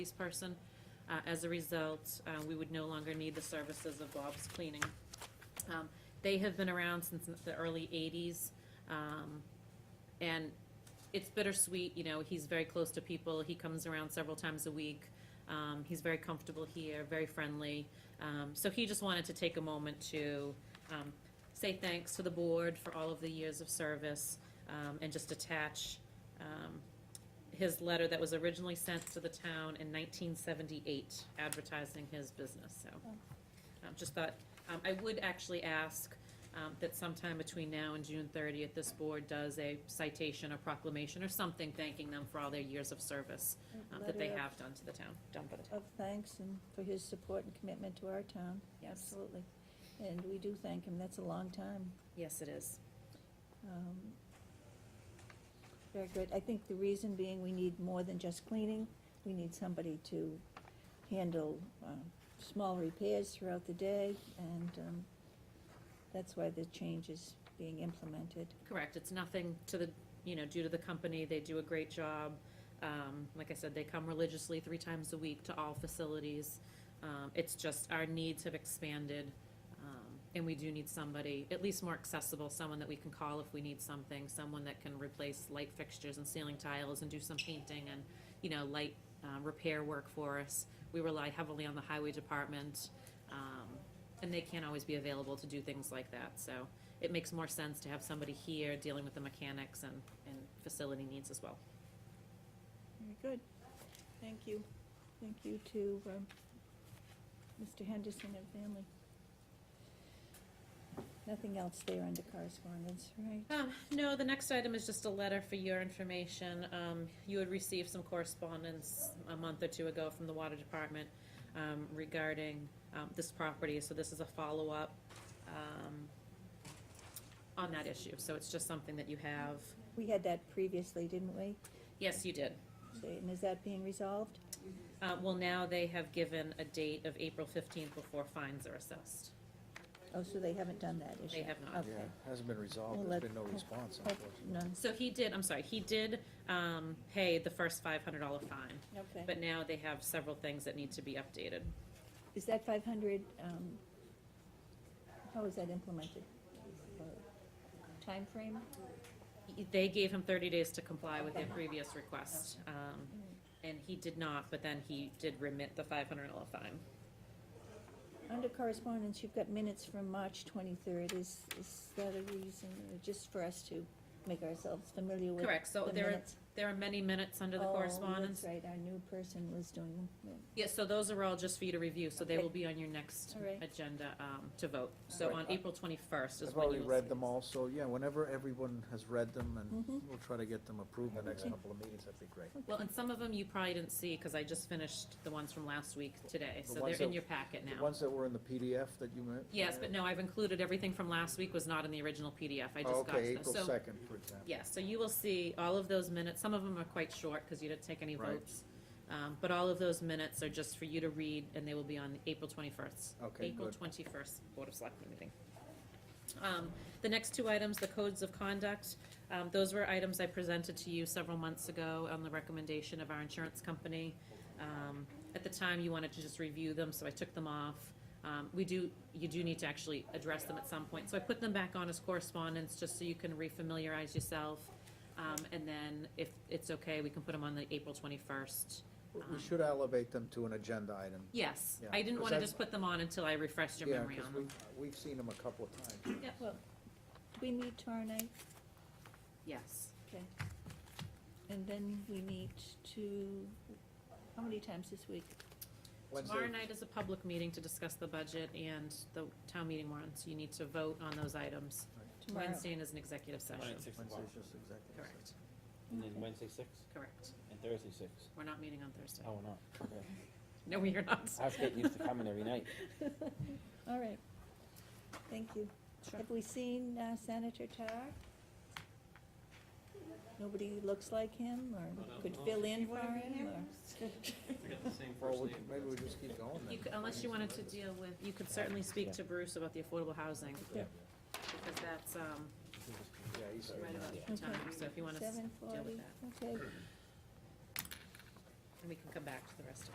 police person. Uh, As a result, uh, we would no longer need the services of Bob's Cleaning. Um, They have been around since the early 80s, um, and it's bittersweet, you know, he's very close to people, he comes around several times a week, Um, he's very comfortable here, very friendly, Um, so he just wanted to take a moment to um, say thanks to the board for all of the years of service, um, and just attach um, his letter that was originally sent to the town in 1978 advertising his business, so. Oh. um, Just thought, um, I would actually ask um, that sometime between now and June 30th, this board does a citation or proclamation or something thanking them for all their years of service um, that they Letter of- have done to the town, done for the town. Of thanks and for his support and commitment to our town. Yes, Absolutely. And we do thank him. That's a long time. yes, it is. Um, Very good. I think the reason being, we need more than just cleaning. We need somebody to handle um, small repairs throughout the day, and um, that's why the change is being implemented. Correct, it's nothing to the, you know, due to the company, they do a great job. Um, like I said, they come religiously three times a week to all facilities. Um, it's just our needs have expanded, um, and we do need somebody, at least more accessible, someone that we can call if we need something, someone that can replace light fixtures and ceiling tiles and do some painting and, you know, light, uh, repair work for us. We rely heavily on the highway department, um, and they can't always be available to do things like that, so it makes more sense to have somebody here dealing with the mechanics and, and facility needs as well. Very good. Thank you. Thank you to um, Mr. Henderson and family. Nothing else there under correspondence, right? Um, no, the next item is just a letter for your information. Um, you had received some correspondence a month or two ago from the water department, um, regarding, um, this property, so this is a follow-up, um, on that issue, so it's just something that you have. We had that previously, didn't we? Yes, you did. And is that being resolved? Uh, well, now they have given a date of April fifteenth before fines are assessed. Oh, so they haven't done that issue? They have not. Okay. Yeah, hasn't been Well, resolved, let- there's been no response, Oh, unfortunately. None, So he did, I'm sorry, he did, um, pay the first five hundred dollar fine, okay. but now they have several things that need to be updated. Is that five hundred, um, how is that implemented? Uh, Timeframe? They gave him thirty days to comply with their previous request, um, and he did not, but then he did remit the five hundred dollar fine. Under correspondence, you've got minutes from March twenty-third. Is, is that a reason, or just for us to make ourselves familiar with Correct, so the there are, minutes? there are many minutes under the Oh, correspondence. that's right, our new person was doing them. Yeah. Yes, so those are all just for you to review, so they Okay. will be on your next All right. agenda, um, to vote. So Right. on April twenty-first is I've when you will already see. read them all, so yeah, whenever everyone has read them, and Mhm. we'll try to get them approved in the next Okay. couple of meetings, that'd be great. Well, and some of them you probably didn't see, because I just finished the ones from last week today, The so they're ones in that- your packet now. The ones that were in the PDF that you meant? Yes, but no, I've included everything from last week was not in the original PDF, I just got Oh, Okay, to them. April So, second, for example. yes, so you will see all of those minutes, some of them are quite short, because you didn't take any Right. votes. Um, but all of those minutes are just for you to read, and they will be on April twenty-first. Okay, April good. twenty-first Board of Selectmen meeting. Um, the next two items, the codes of conduct, um, those were items I presented to you several months ago on the recommendation of our insurance company. Um, at the time, you wanted to just review them, so I took them off. Um, we do, you do need to actually address them at some point, so I put them back on as correspondence, just so you can refamiliarize yourself. Um, and then if it's okay, we can put them on the April twenty-first. We- Um, We should elevate them to an agenda item. Yes, Yeah, I didn't 'cause wanna I've- just put them on until I refreshed your Yeah, memory because on them. we've, we've seen them a couple of times. Yeah. Well, do we meet tomorrow night? Yes. Okay. And then we meet to, how many times this week? Wednesday- Tomorrow night is a public meeting to discuss the budget and the town meeting warrants. You need to vote on those items. Tomorrow. Wednesday is an executive session. Right, six o'clock. Wednesday's just executive. Correct, And then Wednesday six correct. and Thursday six. We're not meeting on Thursday. Oh, no. Okay. No, we are not. I was getting used to coming every night. All right. Thank you. Sure. Have we seen uh, Senator Tar? Nobody looks like him or could fill in for him I or? got the same Well, first we- name. maybe we just keep going You then. could- Unless you wanted to deal with, you could certainly speak to Bruce about the affordable housing. Yeah. Because that's, um, Yeah, he's. right about Yeah. the time, so if you wanna s- Seven deal forty, with that. okay. And we can come back to the rest of